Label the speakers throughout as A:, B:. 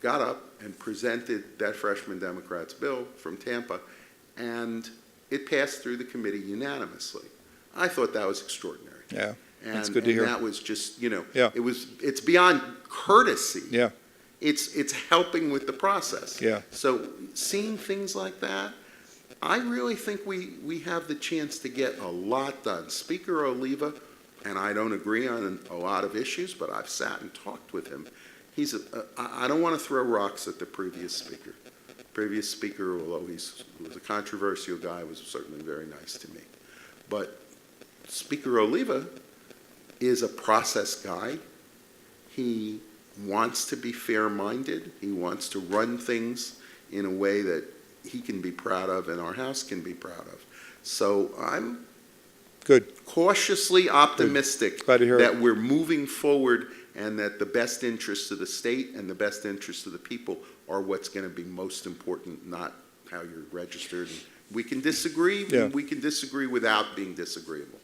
A: got up and presented that freshman Democrat's bill from Tampa, and it passed through the committee unanimously. I thought that was extraordinary.
B: Yeah, that's
A: And-
B: good to hear.
A: And that was just, you know.
B: Yeah.
A: It was, it's beyond courtesy.
B: Yeah.
A: It's, it's helping with the process.
B: Yeah.
A: So seeing things like that, I really think we, we have the chance to get a lot done. Speaker Oliva, and I don't agree on a lot of issues, but I've sat and talked with him. He's, a- I, I don't want to throw rocks at the previous speaker. Previous speaker, although he's, was a controversial guy, was certainly very nice to me. But Speaker Oliva is a process guy. He wants to be fair-minded. He wants to run things in a way that he can be proud of and our house can be proud of. So I'm
B: Good.
A: cautiously optimistic
B: Glad to hear it.
A: that we're moving forward and that the best interests of the state and the best interests of the people are what's going to be most important, not how you're registered. We can disagree,
B: Yeah.
A: we can disagree without being disagreeable.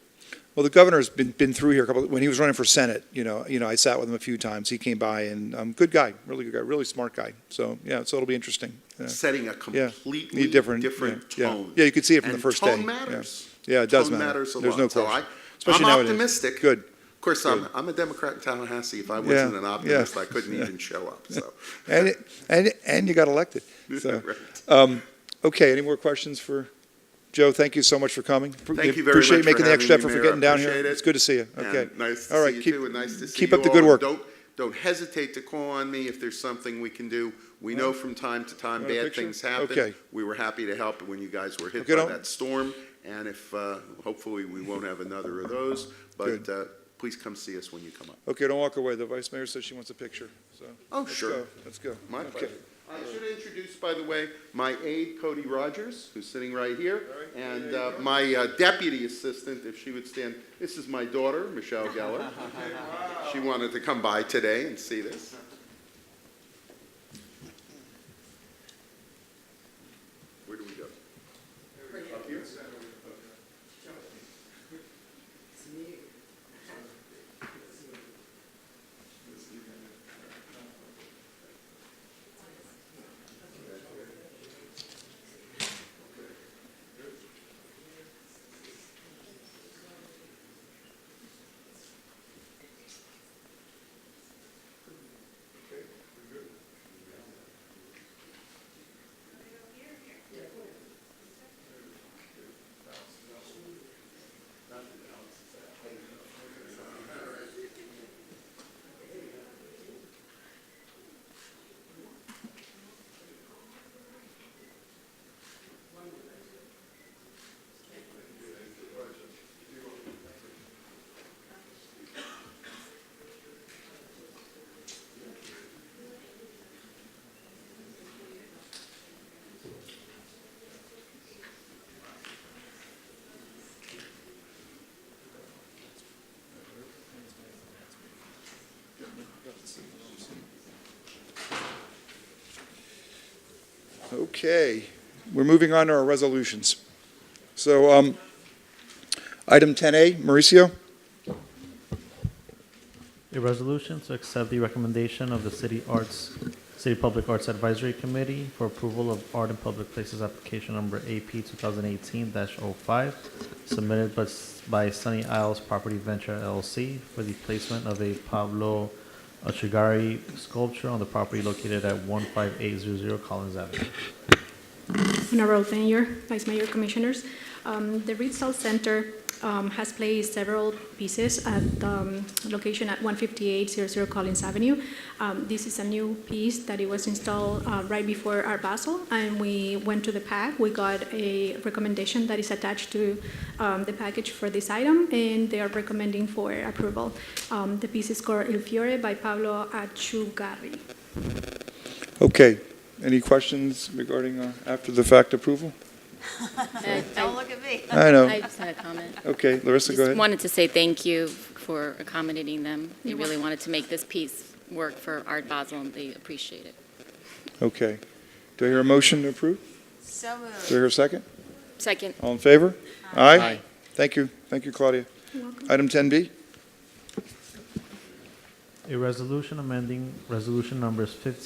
B: Well, the governor's been, been through here a couple, when he was running for Senate, you know, you know, I sat with him a few times. He came by and, um, good guy, really good guy, really smart guy. So, yeah, so it'll be interesting. Yeah.
A: setting a
B: Yeah.
A: completely
B: different-
A: different,
B: yeah, yeah.
A: tone.
B: Yeah, you could see it from the
A: And
B: first day.
A: Tone
B: Yeah.
A: matters.
B: Yeah, it does
A: Tone
B: matter.
A: matters a
B: There's
A: lot.
B: no
A: So
B: question.
A: I,
B: Especially
A: I'm
B: nowadays.
A: optimistic.
B: Good.
A: Of course, I'm,
B: Good.
A: I'm a Democrat in Tallahassee. If I
B: Yeah,
A: wasn't an
B: yeah.
A: optimist, I couldn't
B: Yeah.
A: even show up. So,
B: And, it- and, and you got elected. So,
A: Right.
B: um, okay, any more questions for Joe? Thank you so much for coming.
A: Thank you very
B: Appreciate
A: much
B: making
A: for
B: the extra
A: having me,
B: effort
A: Mayor.
B: for getting down here.
A: Appreciate it.
B: It's good to see you. Okay.
A: and nice to
B: All
A: see
B: right,
A: you
B: keep-
A: too, and nice to see
B: keep
A: you
B: up the
A: all.
B: good work.
A: Don't don't hesitate to call on me if there's something we can do. We know from time to time
B: Want a
A: bad
B: picture?
A: things happen.
B: Okay.
A: We were happy to help when you guys were hit
B: Okay,
A: by
B: don't-
A: that storm, and if uh, hopefully we won't have another of those. But
B: Good.
A: uh, please come see us when you come up.
B: Okay, don't walk away. The vice mayor says she wants a picture, so.
A: Oh,
B: let's
A: sure.
B: go. Let's go.
A: My
B: Okay.
A: pleasure. I should introduce, by the way, my aide Cody Rogers, who's sitting right here, and uh, my uh, deputy assistant, if she would stand. This is my daughter, Michelle Geller. She wanted to come by today and see this. Where do we go? Up here?
B: Okay, we're moving on to our resolutions. So, um, item 10A, Mauricio,
C: A resolution to accept the recommendation of the City Arts, City Public Arts Advisory Committee for approval of Art in Public Places application number AP 2018-05 submitted by S- by Sunny Isles Property Venture LLC for the placement of a Pablo Ochagari sculpture on the property located at 15800 Collins Avenue.
D: Honorable Mayor, Vice Mayor, Commissioners, um, the Reed Salt Center um, has placed several pieces at um, location at 15800 Collins Avenue. Um, This is a new piece that it was installed uh, right before our Basel, and we went to the pack. We got a recommendation that is attached to um, the package for this item, and they are recommending for approval. Um, The piece is called Il Fiore by Pablo Achugarri.
B: okay. Any questions regarding uh, after-the-fact approval?
E: I-
F: Don't look at me.
B: I
E: Uh, I
B: know.
E: I just had a comment.
B: Okay, Larissa, go
E: Just
B: ahead.
E: wanted to say thank you for accommodating them. They
D: You're
E: really wanted to make this piece work for Art Basel, and they appreciate it.
B: Okay. Do I hear a motion to approve? Do
F: So
B: I
F: moved.
B: hear a second?
E: Second,
B: All in favor?
E: Aye.
B: Thank you. Thank you, Claudia.
D: You're welcome.
B: Item 10B,
C: A resolution amending Resolution Numbers 15